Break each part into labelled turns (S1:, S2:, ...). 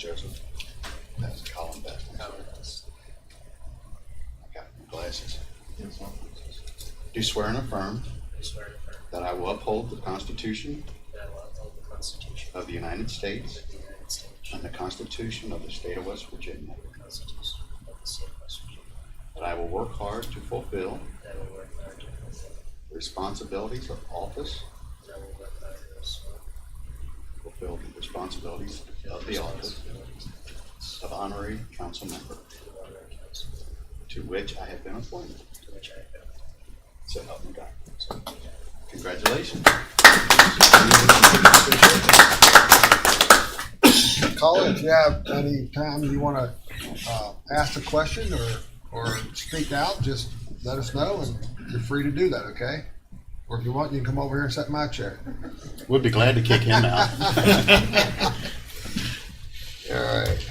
S1: Joseph. That's Colin Beck. I got glasses. Do swear and affirm
S2: I swear and affirm
S1: that I will uphold the Constitution
S2: that I will uphold the Constitution
S1: of the United States
S2: of the United States
S1: and the Constitution of the State of West Virginia,
S2: and the Constitution of the State of West Virginia,
S1: that I will work hard to fulfill
S2: that I will work hard to fulfill,
S1: the responsibilities of office,
S2: that I will work hard to fulfill
S1: fulfill the responsibilities of the office
S2: responsibilities
S1: of honorary council member
S2: of the honorary council
S1: to which I have been appointed.
S2: to which I have been
S1: So help me God.
S2: appointed.
S1: Congratulations.
S3: Caller, if you have any time you want to uh, ask a question or, or speak out, just let us know and you're free to do that, okay? Or if you want, you can come over here and sit in my chair.
S4: We'd be glad to kick him out.
S3: All right.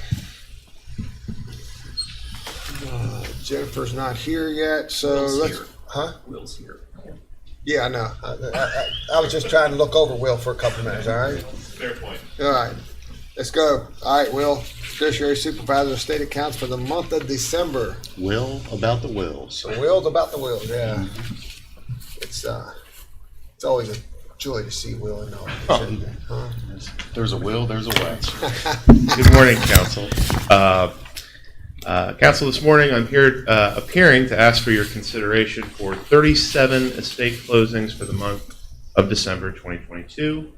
S3: Uh, Jennifer's not here yet, so
S5: Will's
S3: let's.
S5: here.
S3: Huh?
S5: Will's here.
S3: Yeah, I know. I, I, I, I was just trying to look over Will for a couple minutes, all right?
S5: Fair point.
S3: All right, let's go. All right, Will, Judiciary Supervisor of State Accounts for the month of December.
S4: Will about the wills.
S3: The wheels about the wheels, yeah. It's uh, it's always a joy to see Will in all.
S4: Oh.
S3: Huh?
S4: There's a will, there's a way.
S6: Good morning, council. Uh, uh, Council, this morning, I'm here uh, appearing to ask for your consideration for 37 estate closings for the month of December 2022.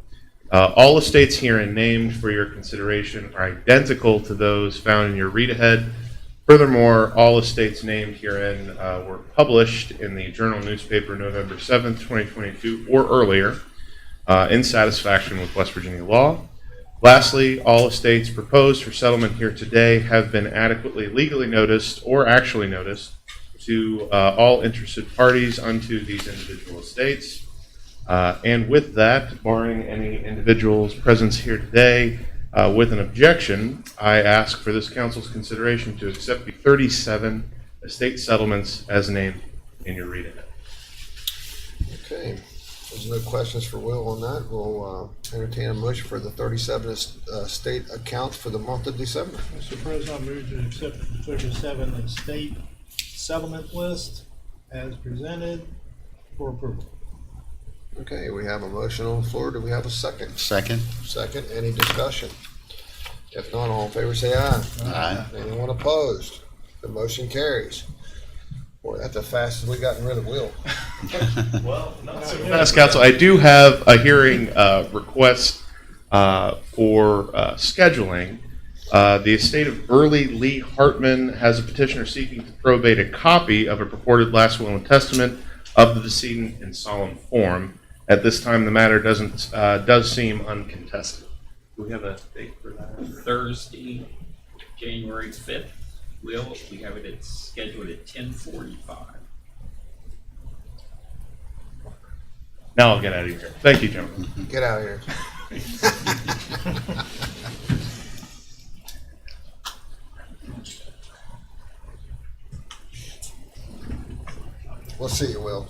S6: Uh, All estates herein named for your consideration are identical to those found in your read-ahead. Furthermore, all estates named herein uh, were published in the Journal newspaper November 7th, 2022, or earlier, uh, in satisfaction with West Virginia law. Lastly, all estates proposed for settlement here today have been adequately legally noticed or actually noticed to uh, all interested parties unto these individual estates. Uh, And with that, barring any individual's presence here today uh, with an objection, I ask for this council's consideration to accept the 37 estate settlements as named in your read ahead.
S3: Okay, there's no questions for Will on that. We'll uh, entertain a motion for the 37 est- uh, state accounts for the month of December.
S7: Mr. President, I move to accept the thirty-seven estate settlement list as presented for approval.
S3: Okay, we have a motion on the floor. Do we have a second?
S4: Second,
S3: Second, any discussion? If not, all in favor, say aye.
S4: Aye.
S3: Anyone opposed? The motion carries. Boy, that's the fastest we gotten rid of Will.
S6: Yes, Council, I do have a hearing uh, request uh, for uh, scheduling. Uh, The estate of Burley Lee Hartman has a petitioner seeking to probate a copy of a purported last will and testament of the decedent in solemn form. At this time, the matter doesn't, uh, does seem uncontested.
S5: Do we have a date for that? Thursday, January fifth. Will, we have it at, scheduled at ten forty-five.
S6: Now I'll get out of here. Thank you, gentlemen.
S3: Get out of here. We'll see you, Will.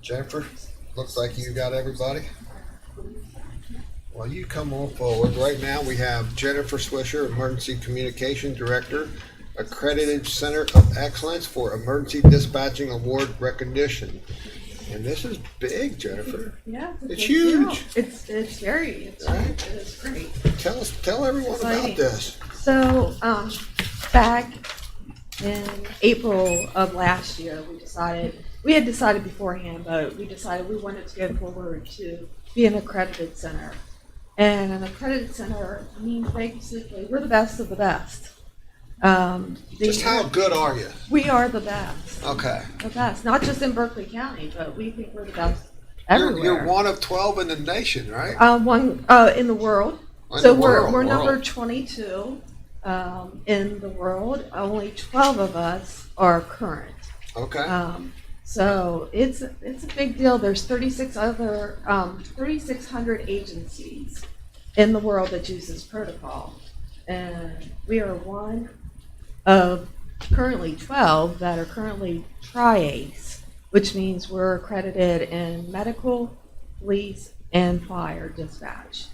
S3: Jennifer, looks like you got everybody. Well, you come on forward. Right now, we have Jennifer Swisher, Emergency Communication Director, Accredited Center of Excellence for Emergency Dispatching Award Recognition. And this is big, Jennifer.
S8: Yeah,
S3: It's
S8: a big deal.
S3: huge.
S8: It's it's very it's
S3: Right.
S8: it is great.
S3: Tell us, tell everyone about
S8: Exciting.
S3: this.
S8: So um, back in April of last year, we decided we had decided beforehand, but we decided we wanted to go forward to be an accredited center. And an accredited center means basically we're the best of the best. Um, the-
S3: Just how good are you?
S8: we are the best,
S3: Okay.
S8: the best, not just in Berkeley County, but we think we're the best
S3: You're,
S8: everywhere.
S3: you're one of 12 in the nation, right? Oh,
S8: Uh, one uh, in the world.
S3: In
S8: so
S3: the
S8: we're,
S3: world,
S8: we're
S3: world.
S8: number 22 um, in the world. Only 12 of us are current.
S3: Okay.
S8: Um, so it's it's a big deal. There's 36 other um, 3,600 agencies in the world that uses protocol, and we are one of currently 12 that are currently TRIACE, which means we're accredited in medical, police, and fire dispatch.